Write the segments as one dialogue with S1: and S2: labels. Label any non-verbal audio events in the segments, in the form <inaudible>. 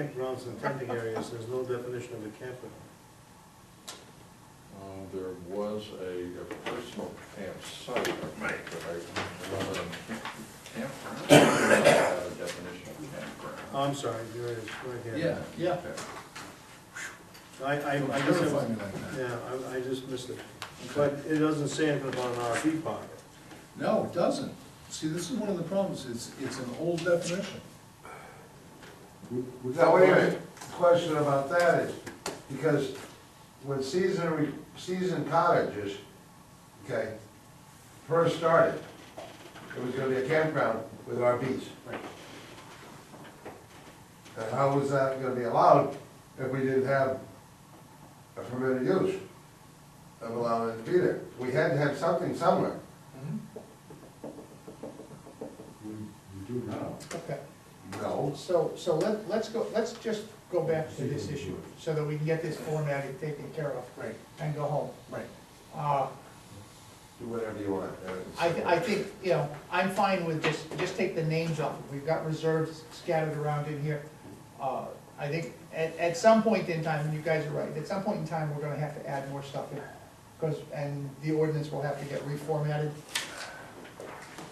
S1: campgrounds and tenting areas, there's no definition of a campground.
S2: Uh, There was a a personal campsite, I think, Um, but I, rather than campground, uh, definition of campground.
S1: Oh, I'm sorry, there it is, right here.
S2: Yeah, yeah.
S1: I, I, I guess I was,
S3: Clarify me like that.
S1: yeah, I, I just missed it. But it doesn't say anything about an RV park.
S3: No, it doesn't. See, this is one of the problems, it's, it's an old definition.
S4: Now, wait a minute, question about that is, because when season, re- season cottages, okay, first started, it was gonna be a campground with RVs. And how was that gonna be allowed if we didn't have a permitted use of allowing it to be there? We had to have something somewhere.
S5: We, we do now.
S6: Okay,
S4: No.
S6: so, so let, let's go, let's just go back to this issue, so that we can get this formatting taken care of.
S3: Right.
S6: And go home.
S3: Right.
S6: Uh,
S4: Do whatever you want. uh,
S6: I, th- I think, you know, I'm fine with just, just take the names off, we've got reserves scattered around in here. Uh, I think, at, at some point in time, and you guys are right, at some point in time, we're gonna have to add more stuff in, because, and the ordinance will have to get reformatted.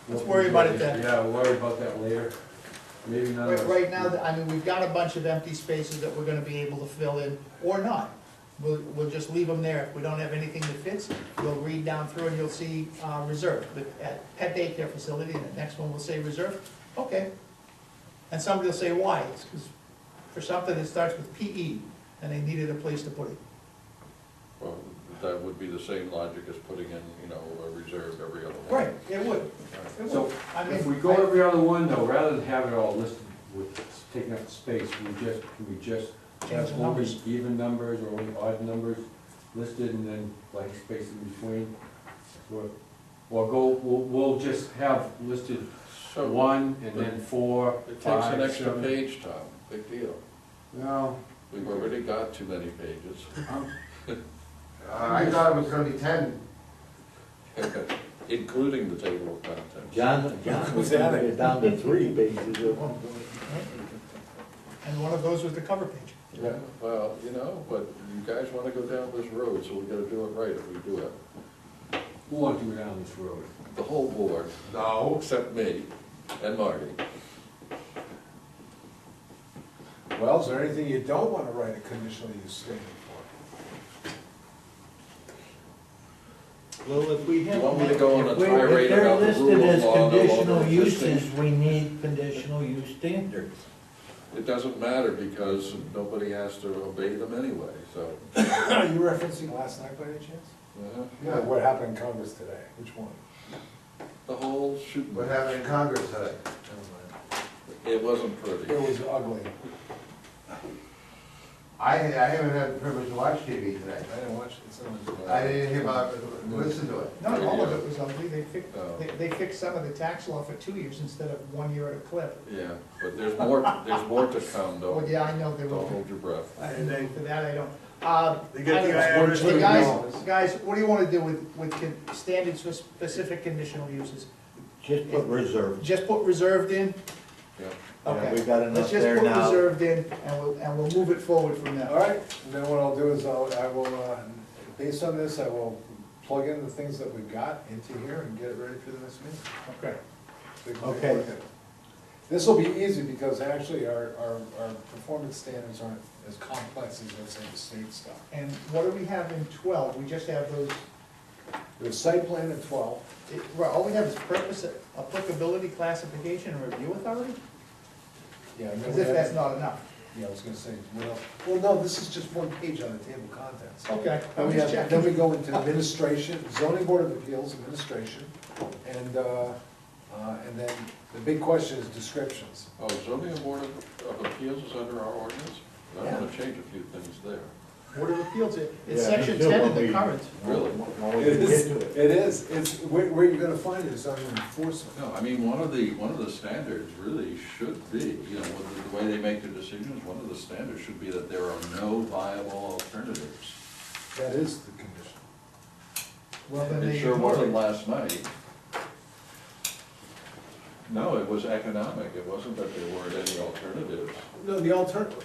S6: Let's worry about it then.
S5: Yeah, we'll worry about that later. Maybe not.
S6: Right, right now, I mean, we've got a bunch of empty spaces that we're gonna be able to fill in, or not. We'll, we'll just leave them there, if we don't have anything that fits, we'll read down through and you'll see, uh, reserve, the at pet daycare facility, and the next one will say reserve, okay. And somebody will say why, it's 'cause for something that starts with PE, and they needed a place to put it.
S2: Well, that would be the same logic as putting in, you know, a reserve every other one.
S6: Right, it would, it
S5: So
S6: would, I mean.
S5: if we go
S6: I-
S5: every other one though, rather than have it all listed with taking up space, we just, can we just
S6: Change
S5: have
S6: the
S5: only
S6: numbers.
S5: even numbers or only odd numbers listed and then blank space in between? Or, or go, we'll, we'll just have listed
S2: So-
S5: one and then four,
S2: Oh. It takes an
S5: five,
S2: extra
S5: seven.
S2: page, Tom, big deal.
S5: No,
S2: We've already got too many pages. <laughs>
S5: I'm-
S4: Uh, I thought it was gonna be ten
S2: Including the table of contents.
S7: John, John was having it down to three pages at one
S6: And one of those was the cover page.
S7: point.
S2: Well, you know, but you guys wanna go down this road, so we gotta do it right if we do it.
S5: who wants to go down this road?
S2: The whole board. No. Except me and Marty.
S3: Well, is there anything you don't wanna write a conditional use statement for?
S7: Well, if we
S2: You
S7: have.
S2: want me to go on a
S7: If we-
S2: tirade about the rule of
S7: If
S2: law
S7: they're
S2: and all
S7: listed as
S2: of
S7: conditional
S2: those things?
S7: uses, we need conditional use standards.
S2: It doesn't matter because nobody has to obey them anyway, so.
S3: <clears throat> Are you referencing last night by any chance?
S2: uh-huh.
S4: Yeah.
S3: What happened in Congress today? Which one?
S2: The whole shooting.
S4: what happened in Congress today.
S2: It wasn't pretty.
S3: It was ugly.
S4: I, I haven't had the privilege to watch TV today.
S3: I didn't watch it, it's on the.
S4: I didn't hear about, listen to it.
S6: Not all of it was ugly, they fixed,
S2: Oh.
S6: they- they fixed some of the tax law for two years instead of one year at a clip.
S2: Yeah, but there's more, there's more to come
S5: Oh.
S2: though.
S6: Well, yeah, I know they
S2: Don't
S6: were,
S2: hold your breath.
S1: And they,
S6: for that I don't. Uh,
S1: they get the
S6: I
S1: IRS.
S6: don't-
S1: to-
S6: The guys, guys, what do you wanna do with, with con- standards for specific conditional uses?
S7: Just put reserves.
S6: Just put reserved in?
S2: Yeah.
S7: Yeah,
S6: Okay.
S7: we got
S6: Let's
S7: enough
S6: just
S7: there
S6: put
S7: now.
S6: reserved in and we'll, and we'll move it forward from
S3: All
S6: there.
S3: right, then what I'll do is I'll, I will, uh, based on this, I will plug in the things that we've got into here and get it ready for the next meeting.
S6: Okay.
S3: We can take a look
S7: Okay.
S3: at it. This will be easy because actually our, our, our performance standards aren't as complex as, let's say, the state stuff.
S6: And what do we have in twelve? We just have those,
S3: There's site plan at twelve,
S6: it- well, all we have is purpose, applicability, classification, and review authority?
S3: yeah. and then
S6: As
S3: we
S6: if
S3: have-
S6: that's not enough.
S3: Yeah, I was gonna say, well, well, no, this is just one page on the table of contents.
S6: Okay,
S3: Then
S6: I'm
S3: we
S6: just
S3: have, then
S6: checking.
S3: we go into administration, zoning board of appeals, administration, and, uh, uh, and then the big question is descriptions.
S2: Oh, zoning board of of appeals is under our ordinance? I wanna change a few things there.
S6: Board of Appeals, it- it's
S7: Yeah,
S6: section
S7: until
S6: ten of
S7: when
S6: the
S7: we-
S6: current.
S2: Really?
S7: When we
S3: It
S7: get
S3: is,
S7: to it.
S3: it is, it's, where, where you're gonna find it is under enforcement.
S2: No, I mean, one of the, one of the standards really should be, you know, with the way they make their decisions, one of the standards should be that there are no viable alternatives.
S3: That is the condition.
S6: Well, then
S2: It
S6: they
S2: sure
S6: ignored
S2: wasn't
S6: it.
S2: last night. No, it was economic, it wasn't that there weren't any alternatives.
S1: No, the alternative,